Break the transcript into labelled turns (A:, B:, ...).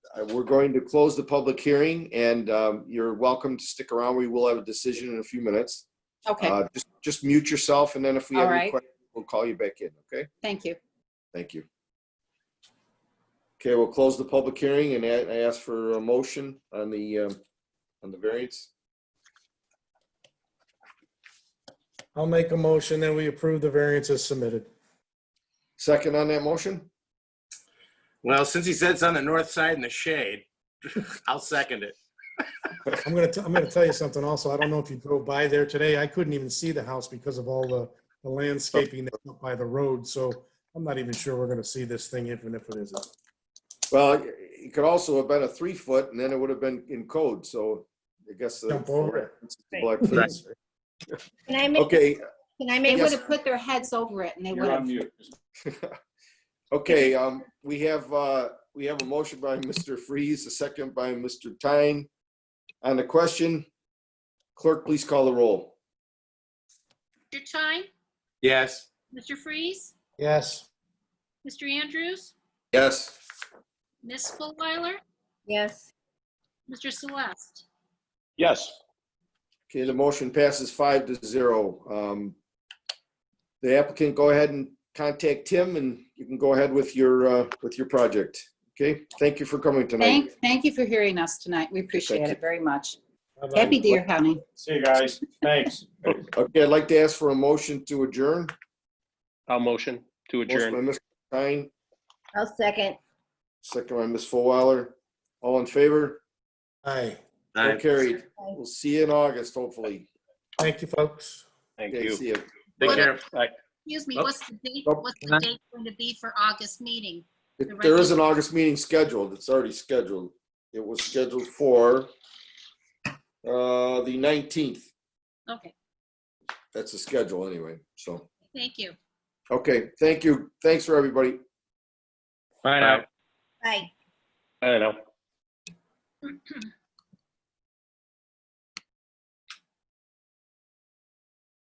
A: uh, we're going to close the public hearing and um, you're welcome to stick around. We will have a decision in a few minutes.
B: Okay,
A: Uh, Just just mute yourself and then if we
B: All
A: have any
B: right.
A: questions, we'll call you back in, okay?
B: thank you.
A: Thank you. Okay, we'll close the public hearing and I I ask for a motion on the, um, on the variance.
C: I'll make a motion that we approve the variance as submitted.
A: Second on that motion?
D: Well, since he said it's on the north side in the shade, I'll second it.
C: I'm gonna, t- I'm gonna tell you something also. I don't know if you drove by there today. I couldn't even see the house because of all the the landscaping that's up by the road, so I'm not even sure we're gonna see this thing even if it isn't.
A: Well, it could also have been a three foot and then it would have been in code, so I guess. the-
C: Jump over it.
A: it's the black fence.
E: Can I make,
A: Okay,
E: can I
B: They
E: make,
B: would have put their heads over it and they would have.
A: Okay, um, we have, uh, we have a motion by Mr. Freeze, a second by Mr. Tyne. On the question, clerk, please call the roll.
F: Mr. Tyne,
D: Yes.
F: Mr. Freeze,
C: Yes,
F: Mr. Andrews,
A: Yes.
F: Ms. Fullwiler,
B: Yes.
F: Mr. Celeste.
G: Yes.
A: Okay, the motion passes five to zero. Um, The applicant, go ahead and contact Tim and you can go ahead with your, uh, with your project. Okay, thank you for coming tonight.
B: Thank, thank you for hearing us tonight. We appreciate
A: Thank
B: it
A: you.
B: very much.
G: Bye-bye.
B: Happy Deer County.
G: See you guys. Thanks.
A: Okay, I'd like to ask for a motion to adjourn.
G: I'll motion to
A: Motion by
G: adjourn.
A: Mr. Tyne,
E: I'll second.
A: second by Ms. Fullwiler. All in favor?
C: aye.
A: So carried. We'll see you in August, hopefully.
C: Thank you, folks.
G: Thank
A: Okay, see
G: you.
A: you.
D: Take care.
F: Excuse me,
D: Oh.
F: what's the date,
A: Oh.
F: what's the date going to be for August meeting?
A: If There is an August meeting scheduled. It's already scheduled. It was scheduled for uh, the 19th.
F: Okay,
A: That's the schedule anyway, so.
F: thank you.
A: Okay, thank you. Thanks for everybody.
G: Bye now.
E: Bye.
G: I know.